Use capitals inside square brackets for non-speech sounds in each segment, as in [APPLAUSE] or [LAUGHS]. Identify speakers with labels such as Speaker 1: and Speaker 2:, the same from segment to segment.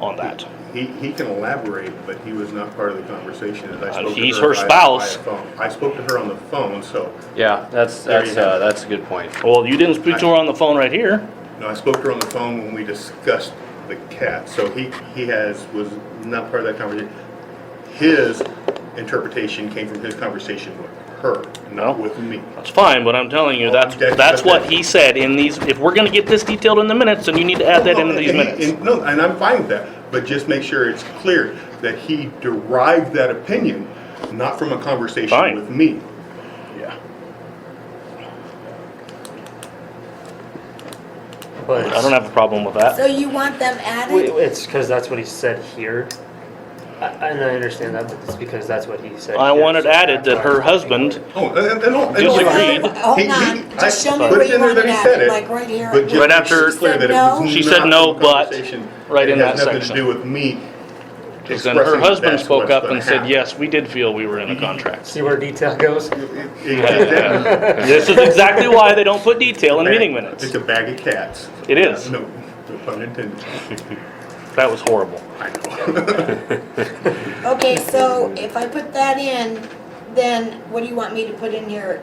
Speaker 1: on that.
Speaker 2: He, he can elaborate, but he was not part of the conversation. as I
Speaker 1: Uh,
Speaker 2: spoke to
Speaker 1: he's her
Speaker 2: by- by
Speaker 1: spouse.
Speaker 2: a phone. I spoke to her on the phone, so,
Speaker 3: Yeah, that's,
Speaker 2: There you
Speaker 3: that's,
Speaker 2: go.
Speaker 3: uh, that's a good point.
Speaker 1: Well, you didn't speak to her on the phone right here.
Speaker 2: no, I spoke to her on the phone when we discussed the cat. So he, he has, was not part of that conversation. His interpretation came from his conversation with her, not with me.
Speaker 1: That's fine, but I'm telling you, that's,
Speaker 2: Okay,
Speaker 1: that's what
Speaker 2: okay.
Speaker 1: he said in these, if we're gonna get this detailed in the minutes, then you need to add that
Speaker 2: No,
Speaker 1: into these
Speaker 2: and he-
Speaker 1: minutes.
Speaker 2: and- No, and I'm fine with that, but just make sure it's clear that he derived that opinion, not from a
Speaker 1: Fine.
Speaker 2: conversation with me.
Speaker 1: Yeah.
Speaker 4: But
Speaker 1: I don't have a problem with
Speaker 5: So
Speaker 1: that.
Speaker 5: you want them
Speaker 4: Wait,
Speaker 5: added?
Speaker 4: it's because that's what he said here. I, and I understand that, but it's because that's what he said.
Speaker 1: I
Speaker 4: here,
Speaker 1: wanted
Speaker 4: so
Speaker 1: added that
Speaker 4: that's why
Speaker 1: her
Speaker 4: I'm thinking
Speaker 1: husband,
Speaker 4: about
Speaker 2: Oh, and, and, and no, and no,
Speaker 1: Disagreed.
Speaker 2: I-
Speaker 5: Hold on, hold
Speaker 2: he- he- I
Speaker 5: on. Just show me
Speaker 2: put
Speaker 5: where
Speaker 2: it in
Speaker 5: you
Speaker 2: there that he
Speaker 5: want it
Speaker 2: said
Speaker 5: at,
Speaker 2: it,
Speaker 5: like right here.
Speaker 2: but just
Speaker 1: Right
Speaker 2: make
Speaker 1: after-
Speaker 2: sure
Speaker 1: She
Speaker 2: it's clear
Speaker 5: said
Speaker 2: that it
Speaker 5: no.
Speaker 2: was
Speaker 1: She said
Speaker 2: not
Speaker 1: no,
Speaker 2: from a
Speaker 1: but,
Speaker 2: conversation.
Speaker 1: right in that
Speaker 2: It has
Speaker 1: section.
Speaker 2: nothing to do with me.
Speaker 1: because then her
Speaker 2: expressing
Speaker 1: husband
Speaker 2: that's
Speaker 1: spoke
Speaker 2: what's
Speaker 1: up
Speaker 2: gonna
Speaker 1: and said,
Speaker 2: happen.
Speaker 1: yes, we did feel we were in a
Speaker 4: it.
Speaker 2: [LAUGHS]
Speaker 1: contract.
Speaker 4: See where detail goes?
Speaker 2: Exactly.
Speaker 1: This is exactly why they don't put detail in [LAUGHS] meeting
Speaker 2: It's
Speaker 1: minutes.
Speaker 2: a bag of cats.
Speaker 1: It is.
Speaker 2: No, no pun intended. [LAUGHS]
Speaker 1: That was horrible.
Speaker 2: I know.
Speaker 5: Okay, so if I put that in, then what do you want me to put in here?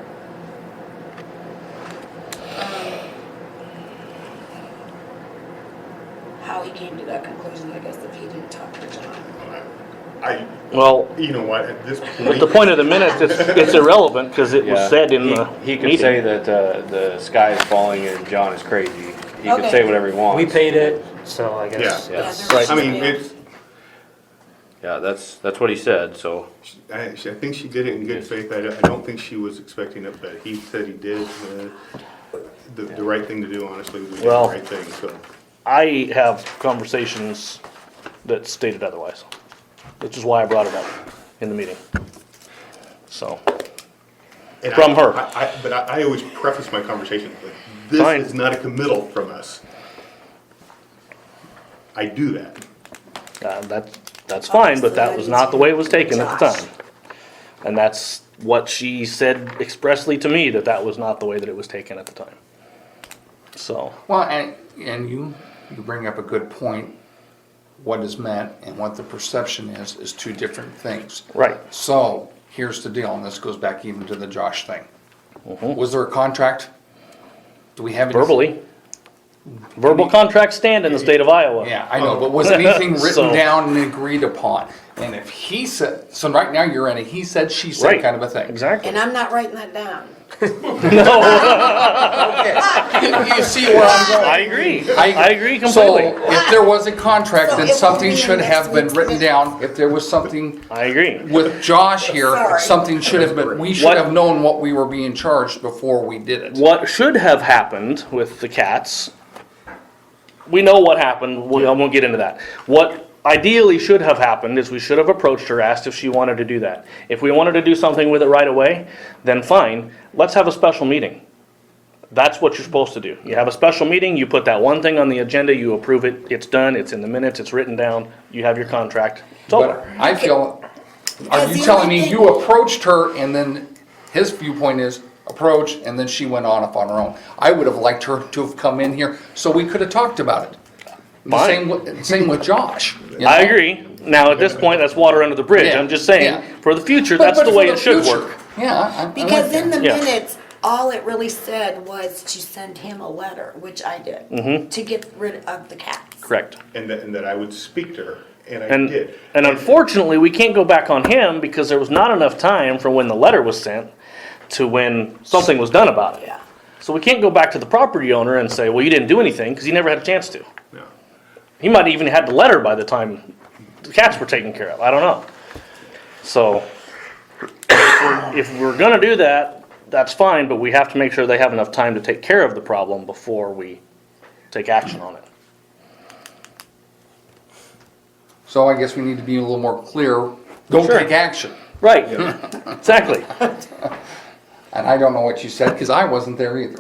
Speaker 5: Um, How he came to that conclusion, I guess, if he didn't talk to John.
Speaker 2: I,
Speaker 1: Well,
Speaker 2: you know what, at this
Speaker 1: at the
Speaker 2: point,
Speaker 1: point of the minutes, it's, it's irrelevant because it was
Speaker 3: Yeah.
Speaker 1: said in
Speaker 3: He-
Speaker 1: the
Speaker 3: He could say
Speaker 1: meeting.
Speaker 3: that, uh, the sky is falling and John is crazy. He could
Speaker 5: Okay.
Speaker 3: say whatever he wants.
Speaker 4: We paid it, so I guess.
Speaker 3: Yeah.
Speaker 5: Yeah,
Speaker 4: that's-
Speaker 5: there was
Speaker 2: I
Speaker 5: just
Speaker 2: mean,
Speaker 5: a-
Speaker 2: it's,
Speaker 3: Yeah, that's, that's what he said, so.
Speaker 2: I, she- I think she did it in good faith. I, don't- I don't think she was expecting it, but he said he did, uh, the, the right thing to do, honestly, we did the
Speaker 1: Well-
Speaker 2: right thing, so.
Speaker 1: I have conversations that stated otherwise, which is why I brought it up in the meeting. So,
Speaker 2: And I-
Speaker 1: From her.
Speaker 2: I, I, but I, I always preface my conversation with, this
Speaker 1: Fine.
Speaker 2: is not a committal from us. I do that.
Speaker 1: uh, that's, that's fine, but that was not the way it was taken at the time. And that's what she said expressly to me, that that was not the way that it was taken at the time. So,
Speaker 6: Well, and, and you, you bring up a good point. What is meant and what the perception is, is two different things.
Speaker 1: right,
Speaker 6: So, here's the deal, and this goes back even to the Josh thing. Was there a contract? Do we have? any-
Speaker 1: Mm-hmm. verbally. Verbal contracts stand in the state of Iowa.
Speaker 6: Yeah, I know, but was anything
Speaker 1: [LAUGHS] So-
Speaker 6: written down and agreed upon? And if he said, so right now you're in a he said, she said
Speaker 1: Right.
Speaker 6: kind of a thing.
Speaker 1: Exactly.
Speaker 5: And I'm not writing that down.
Speaker 2: [LAUGHS]
Speaker 5: [LAUGHS]
Speaker 6: Okay. You- You see where I'm going?
Speaker 1: I agree. I agree
Speaker 6: So
Speaker 1: completely.
Speaker 6: if there was a contract,
Speaker 5: So
Speaker 6: then
Speaker 5: it would
Speaker 6: something
Speaker 5: be
Speaker 6: should
Speaker 5: next
Speaker 6: have been
Speaker 5: week's
Speaker 6: written
Speaker 5: minutes.
Speaker 6: down. If there was something
Speaker 1: I agree.
Speaker 6: with Josh here,
Speaker 5: Sorry.
Speaker 6: something should have been, we
Speaker 1: What-
Speaker 6: should have known what we were being charged before we did it.
Speaker 1: what should have happened with the cats we know what happened we, i won't get into that what ideally should have happened is we should have approached her asked if she wanted to do that if we wanted to do something with it right away then fine let's have a special meeting that's what you're supposed to do you have a special meeting you put that one thing on the agenda you approve it it's done it's in the minutes it's written down you have your contract it's
Speaker 6: But
Speaker 1: over
Speaker 6: I feel,
Speaker 5: Because
Speaker 6: are you
Speaker 5: the
Speaker 6: telling
Speaker 5: only
Speaker 6: me
Speaker 5: thing-
Speaker 6: you approached her and then his viewpoint is approach and then she went on up on her own? I would have liked her to have come in here so we could have talked about it. And The
Speaker 1: Fine.
Speaker 6: same, with- same with Josh. you
Speaker 1: I
Speaker 6: know?
Speaker 1: agree. Now, at this point, that's water under the bridge.
Speaker 6: Yeah,
Speaker 1: I'm just saying,
Speaker 6: yeah.
Speaker 1: for the future,
Speaker 6: But-
Speaker 1: that's
Speaker 6: but
Speaker 1: the
Speaker 6: for
Speaker 1: way it should
Speaker 6: future,
Speaker 1: work.
Speaker 6: Yeah. I- I like
Speaker 5: Because in
Speaker 6: that.
Speaker 5: the
Speaker 1: Yeah.
Speaker 5: minutes, all it really said was to send him a letter, which I did, to get rid of the cats.
Speaker 1: Correct.
Speaker 2: And that, and that I would speak to her, and I
Speaker 1: And,
Speaker 2: did.
Speaker 1: and unfortunately, we can't go back on him because there was not enough time from when the letter was sent to when something was done about it.
Speaker 5: Yeah.
Speaker 1: So we can't go back to the property owner and say, well, you didn't do anything, because he never had a chance to.
Speaker 2: No.
Speaker 1: He might even had the letter by the time the cats were taken care of, I don't know. So, if we're gonna do that, that's fine, but we have to make sure they have enough time to take care of the problem before we take action on it.
Speaker 6: So I guess we need to be a little more clear. Don't
Speaker 1: Sure.
Speaker 6: take action.
Speaker 1: Right, exactly.
Speaker 6: And I don't know what you said because I wasn't there either.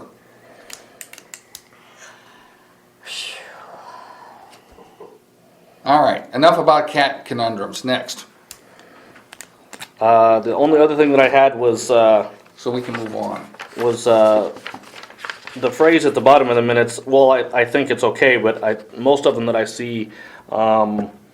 Speaker 6: All right, enough about cat conundrums. Next,
Speaker 1: Uh, the only other thing that I had was, uh,
Speaker 6: so we can move on.
Speaker 1: was uh, the phrase at the bottom of the minutes, well, I, I think it's okay, but I, most of them that I see